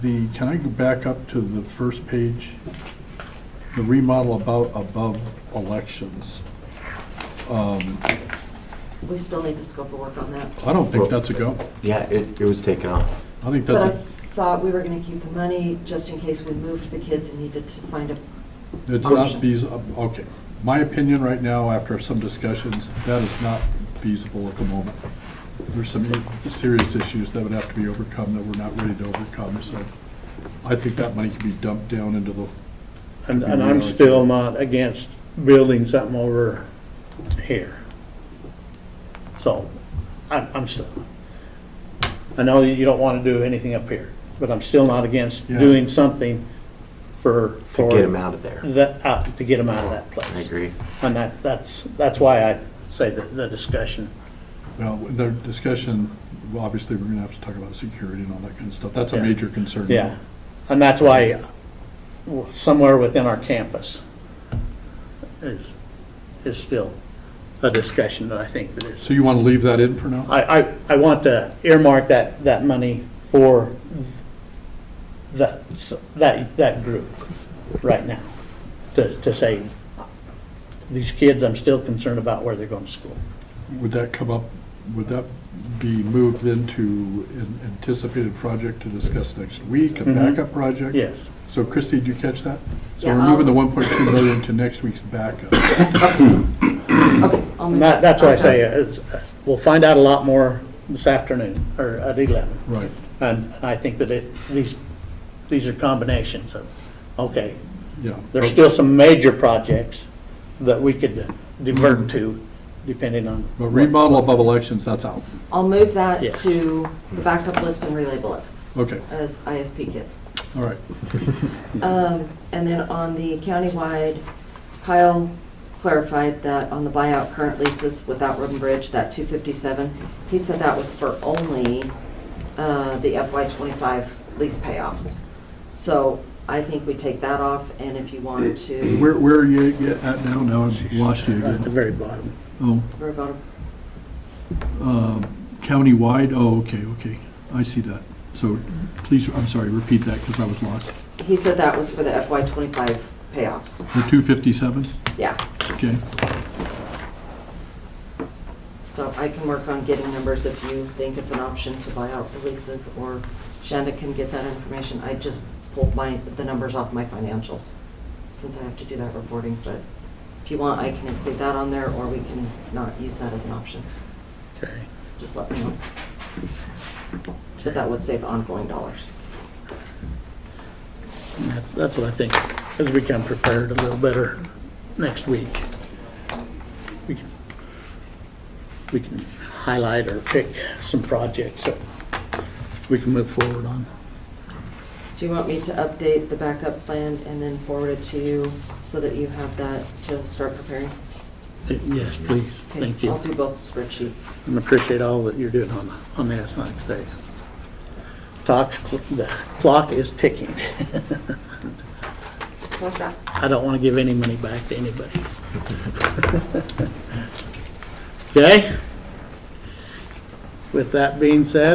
The, can I go back up to the first page? The remodel about, above elections. Um, We still need the scope of work on that. I don't think that's a go. Yeah, it, it was taken off. I think But that's I a, thought we were going to keep the money just in case we moved the kids and needed to find a, it's not feasible, okay. My opinion right now, after some discussions, that is not feasible at the moment. There's some serious issues that would have to be overcome that we're not ready to overcome, so I think that money can be dumped down into the, And, and I'm still not against building something over here. So, I'm, I'm still, I know you don't want to do anything up here, but I'm still not against Yeah. doing something for, To for. get him out of there. That, out, to get them out of that place. I agree. And that, that's, that's why I say the, the discussion. well, the discussion, well, obviously, we're gonna have to talk about security and all that kind of stuff. That's a Yeah. major concern. Yeah, and that's why w- somewhere within our campus is, is still a discussion that I think that is. So you want to leave that in for now? I, I, I want to earmark that, that money for that, s- that, that group right now, to, to say, these kids, I'm still concerned about where they're going to school. Would that come up, would that be moved into an anticipated project to discuss next week, a Mhm. backup project? Yes, So Christie, did you catch that? So Yeah, we're moving the I'll- 1.2 million to next week's backup. okay. I'll and make that, that's why I say, Okay. it's- we'll find out a lot more this afternoon, or at 11. Right. And I think that it, these, these are combinations of, okay, Yeah. there's still some major projects that we could divert to, depending on. But remodel above elections, that's out. I'll move that Yes. to the backup list and relabel it Okay, as ISP kids. all right. Um, And then on the countywide, Kyle clarified that on the buyout current leases without Roden Bridge, that 257, he said that was for only uh, the FY25 lease payoffs. So I think we take that off, and if you want to. Where, where are you at now? Now I've lost you Right At the again. very bottom. Oh, We're about countywide, oh, okay, okay. I see that. So please, I'm sorry, repeat that because I was lost. a- He said that was for the FY '25 payoffs. The 257? Yeah, Okay. so I can work on getting numbers if you think it's an option to buy out the leases, or Shanda can get that information. I just pulled my, the numbers off my financials, since I have to do that reporting, but if you want, I can include that on there, or we can not use that as an option. Okay. Just let me know. But that would save ongoing dollars. That's- That's what I think, as we come prepared a little better next week. We can we can highlight or pick some projects that we can move forward on. Do you want me to update the backup plan and then forward it to you, so that you have that to start preparing? Yes, please, Okay, thank you. I'll do both spreadsheets. and appreciate all that you're doing on, on this, like I say. Talks, the clock is ticking. Like that. I don't want to give any money back to anybody. Okay? With that being said,